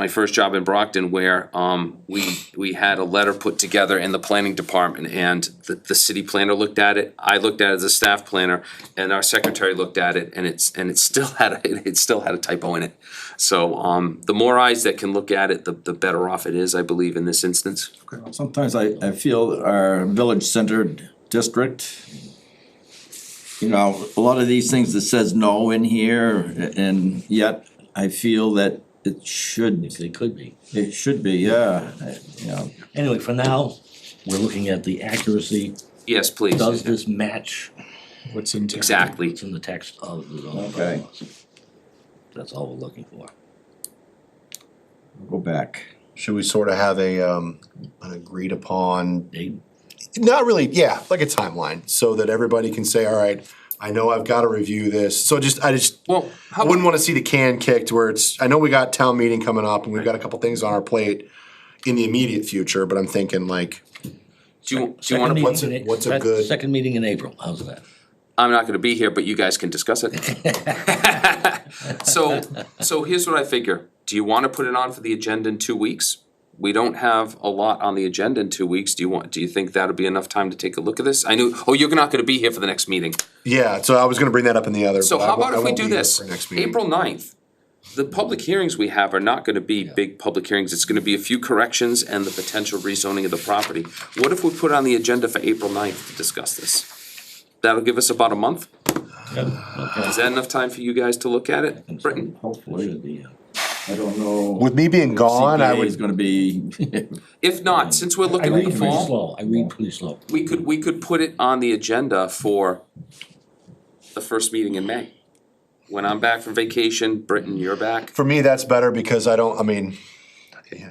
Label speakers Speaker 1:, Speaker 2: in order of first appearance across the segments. Speaker 1: my first job in Brockton where um we we had a letter put together in the planning department and the the city planner looked at it, I looked at it as a staff planner and our secretary looked at it and it's and it still had a, it- it still had a typo in it. So um the more eyes that can look at it, the the better off it is, I believe, in this instance.
Speaker 2: Sometimes I, I feel our village centered district, you know, a lot of these things that says no in here, a- and yet I feel that it should,
Speaker 3: They could be.
Speaker 2: it should be, yeah, you know.
Speaker 3: Anyway, for now, we're looking at the accuracy.
Speaker 1: Yes, please.
Speaker 3: Does this match
Speaker 4: What's in town?
Speaker 1: Exactly.
Speaker 3: what's in the text of the zoning
Speaker 2: Okay.
Speaker 3: bylaws? That's all we're looking for.
Speaker 2: Go back.
Speaker 5: Should we sort of have a, um, an agreed upon,
Speaker 3: They,
Speaker 5: not really, yeah, like a timeline, so that everybody can say, all right, I know I've gotta review this, so just, I just,
Speaker 1: Well,
Speaker 5: I wouldn't wanna see the can kicked where it's, I know we got town meeting coming up and we've got a couple things on our plate in the immediate future, but I'm thinking like,
Speaker 1: do you do you
Speaker 3: second
Speaker 1: wanna
Speaker 3: meeting
Speaker 5: what's a-
Speaker 3: in A-
Speaker 5: what's a
Speaker 3: sec-
Speaker 5: good-
Speaker 3: Second meeting in April, how's that?
Speaker 1: I'm not gonna be here, but you guys can discuss it. So, so here's what I figure, do you wanna put it on for the agenda in two weeks? We don't have a lot on the agenda in two weeks, do you want, do you think that'll be enough time to take a look at this? I knew, oh, you're not gonna be here for the next meeting,
Speaker 5: yeah, so I was gonna bring that up in the other.
Speaker 1: so
Speaker 5: but I
Speaker 1: how about
Speaker 5: won't- I
Speaker 1: if we
Speaker 5: won't
Speaker 1: do
Speaker 5: be here
Speaker 1: this?
Speaker 5: for next meeting.
Speaker 1: April 9th. the public hearings we have are not gonna be big public hearings, it's gonna be a few corrections and the potential rezoning of the property. What if we put it on the agenda for April 9th to discuss this? That'll give us about a month? Is that enough time for you guys to look at it, Britton?
Speaker 2: Hopefully,
Speaker 3: uh,
Speaker 2: I don't know.
Speaker 5: With me being gone, I
Speaker 2: CPA
Speaker 5: would
Speaker 2: is gonna be,
Speaker 1: If not, since we're
Speaker 3: I
Speaker 1: looking at
Speaker 3: read
Speaker 1: the
Speaker 3: pretty
Speaker 1: fall,
Speaker 3: slow, I read pretty slow.
Speaker 1: we could, we could put it on the agenda for the first meeting in May. When I'm back from vacation, Britton, you're back.
Speaker 5: for me, that's better because I don't, I mean,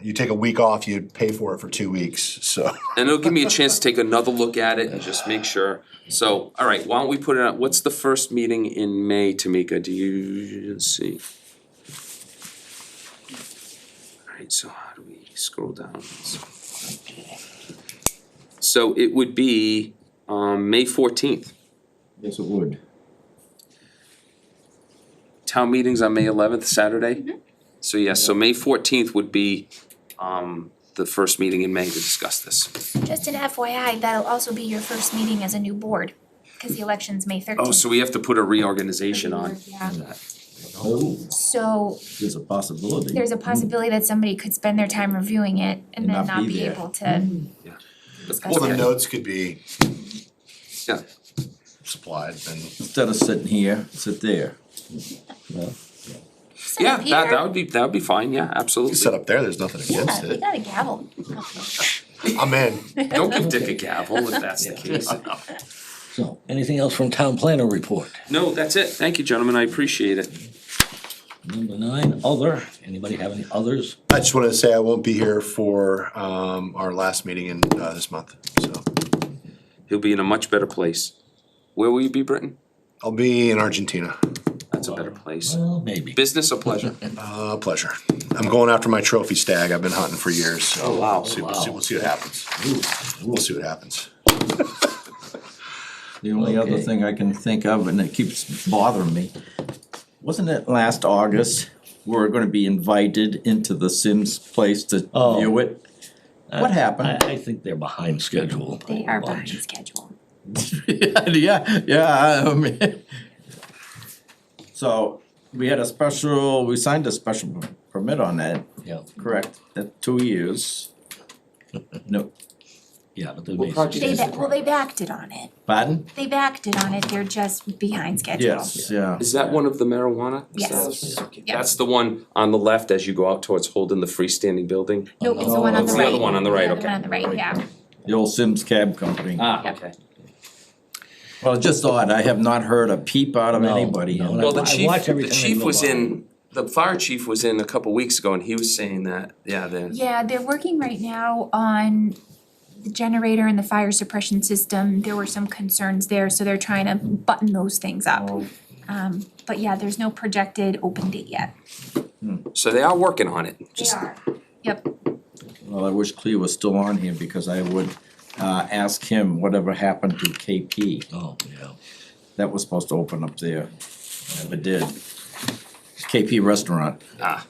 Speaker 5: you take a week off, you pay for it for two weeks, so.
Speaker 1: And it'll give me a chance to take another look at it and just make sure. So, all right, why don't we put it on, what's the first meeting in May, Tamika? Do you, let's see. All right, so how do we scroll down? So it would be, um, May fourteenth.
Speaker 2: yes, it would.
Speaker 1: town meetings on May eleventh, Saturday? So yes, so May fourteenth would be um the first meeting in May to discuss this.
Speaker 6: Just an FYI, that'll also be your first meeting as a new board, because the election's May thirteenth.
Speaker 1: Oh, so we have to put a reorganization on.
Speaker 6: Yeah,
Speaker 2: Oh,
Speaker 6: so
Speaker 2: there's a possibility.
Speaker 6: there's a possibility that somebody could spend their time reviewing it and then not be Mm-hmm.
Speaker 2: there.
Speaker 6: able to.
Speaker 1: That's
Speaker 5: Well, the
Speaker 1: okay.
Speaker 5: notes could be
Speaker 1: Yeah.
Speaker 5: supplied and.
Speaker 2: Instead of sitting here, sit there.
Speaker 6: Just
Speaker 1: Yeah,
Speaker 6: like
Speaker 1: that that
Speaker 6: Peter.
Speaker 1: would be, that would be fine, yeah, absolutely.
Speaker 5: Set up there, there's nothing against
Speaker 6: Yeah, we
Speaker 5: it.
Speaker 6: got a gavel.
Speaker 5: I'm in.
Speaker 1: Don't give Dick a gavel if that's the case.
Speaker 3: So, anything else from town planner report?
Speaker 1: No, that's it, thank you, gentlemen, I appreciate it.
Speaker 3: Number nine, other, anybody have any others?
Speaker 5: I just wanted to say I won't be here for um our last meeting in uh this month, so.
Speaker 1: He'll be in a much better place. Where will you be, Britton?
Speaker 5: I'll be in Argentina.
Speaker 1: That's a better place.
Speaker 3: Well, maybe.
Speaker 1: Business or pleasure?
Speaker 5: Uh, pleasure. I'm going after my trophy stag. I've been hunting for years, so.
Speaker 1: Oh, wow.
Speaker 5: we'll see- we'll
Speaker 3: Wow.
Speaker 5: see, we'll see what happens. We'll see what happens.
Speaker 2: The only other
Speaker 3: Okay.
Speaker 2: thing I can think of, and it keeps bothering me, wasn't it last August, we were gonna be invited into the Sims place to
Speaker 3: Oh.
Speaker 2: view it? What
Speaker 3: I,
Speaker 2: happened?
Speaker 3: Uh, I think they're behind schedule.
Speaker 6: They are
Speaker 3: Bunch.
Speaker 6: behind schedule.
Speaker 2: Yeah, yeah, I mean. So, we had a special, we signed a special permit on that,
Speaker 3: Yeah,
Speaker 2: correct, at two years. No,
Speaker 3: yeah, but they're
Speaker 1: What project
Speaker 6: They,
Speaker 3: basically.
Speaker 1: is
Speaker 6: ba- well, they backed it on it.
Speaker 2: pardon?
Speaker 6: They backed it on it, they're just behind schedule.
Speaker 2: Yes, yeah,
Speaker 1: Is that one of the marijuana?
Speaker 6: Yes, yeah.
Speaker 1: That's the one on the left as you go out towards Holden, the freestanding building.
Speaker 6: Nope, it's the one on
Speaker 1: Oh, It's
Speaker 6: the right.
Speaker 1: the other one on the right,
Speaker 6: The
Speaker 1: okay.
Speaker 6: one on the right, yeah.
Speaker 2: the old Sims Cab Company.
Speaker 1: Ah,
Speaker 6: Yep.
Speaker 1: okay.
Speaker 2: Well, just odd, I have not heard a peep out of
Speaker 3: No,
Speaker 2: anybody.
Speaker 3: no,
Speaker 2: in
Speaker 3: no.
Speaker 1: Well, the
Speaker 3: I
Speaker 1: chief,
Speaker 3: watch every
Speaker 1: the
Speaker 3: time they
Speaker 1: chief
Speaker 3: go
Speaker 1: was
Speaker 3: by.
Speaker 1: in, the fire chief was in a couple weeks ago and he was saying that, yeah, then.
Speaker 6: Yeah, they're working right now on the generator and the fire suppression system. There were some concerns there, so they're trying to button those things up. Um, but yeah, there's no projected open date yet.
Speaker 1: So they are working on it. Just-
Speaker 6: are. Yep,
Speaker 2: Well, I wish Clea was still on here because I would uh ask him whatever happened to KP.
Speaker 3: Oh, yeah.
Speaker 2: That was supposed to open up there, never did. KP Restaurant.
Speaker 1: Ah,